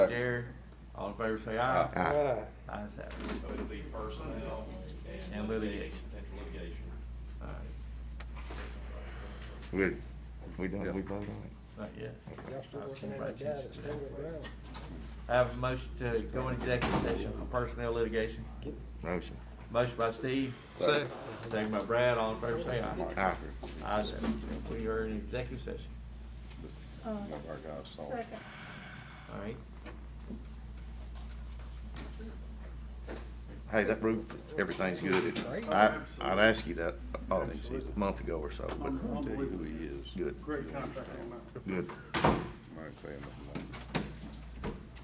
Jared, all in favor say aye. Ah. Aye. Ayes have it. So it'll be personnel and. And litigation. Potential litigation. All right. We, we done, we voted on Not yet. Y'all still working on that guy that's still with Brown? I have a motion to go into executive session for personnel litigation. it? Motion. Motion by Steve. Second. Second by Brad, all in favor say aye. Ah. Aye. Ah. Ayes have it. We are in executive session. Uh, One of our guys saw it. Second. All right. Hey, that roof, everything's good. I, I'd ask you that, oh, a month ago or so, but I'll tell you who he is. good, Great contract came out. good. I'm not saying nothing.